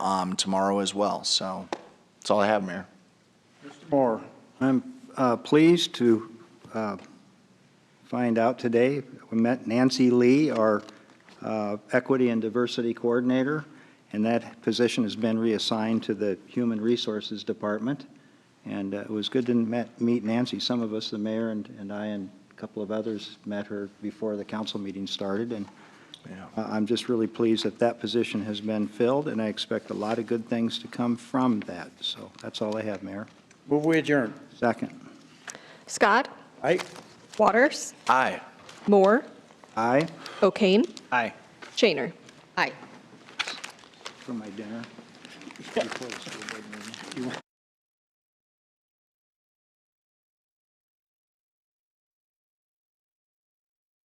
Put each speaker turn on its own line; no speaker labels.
um, tomorrow as well. So that's all I have, Mayor.
Moore, I'm uh, pleased to uh, find out today, we met Nancy Lee, our uh, Equity and Diversity Coordinator, and that position has been reassigned to the Human Resources Department. And uh, it was good to met- meet Nancy. Some of us, the mayor and and I and a couple of others, met her before the council meeting started, and
Yeah.
I- Uh, I'm just really pleased that that position has been filled, and I expect a lot of good things to come from that. So that's all I have, Mayor.
Move we adjourn.
Second.
Scott,
Aye.
Waters,
Aye.
Moore,
Aye.
O'Kane,
Aye.
Shaner. Aye.
For my dinner.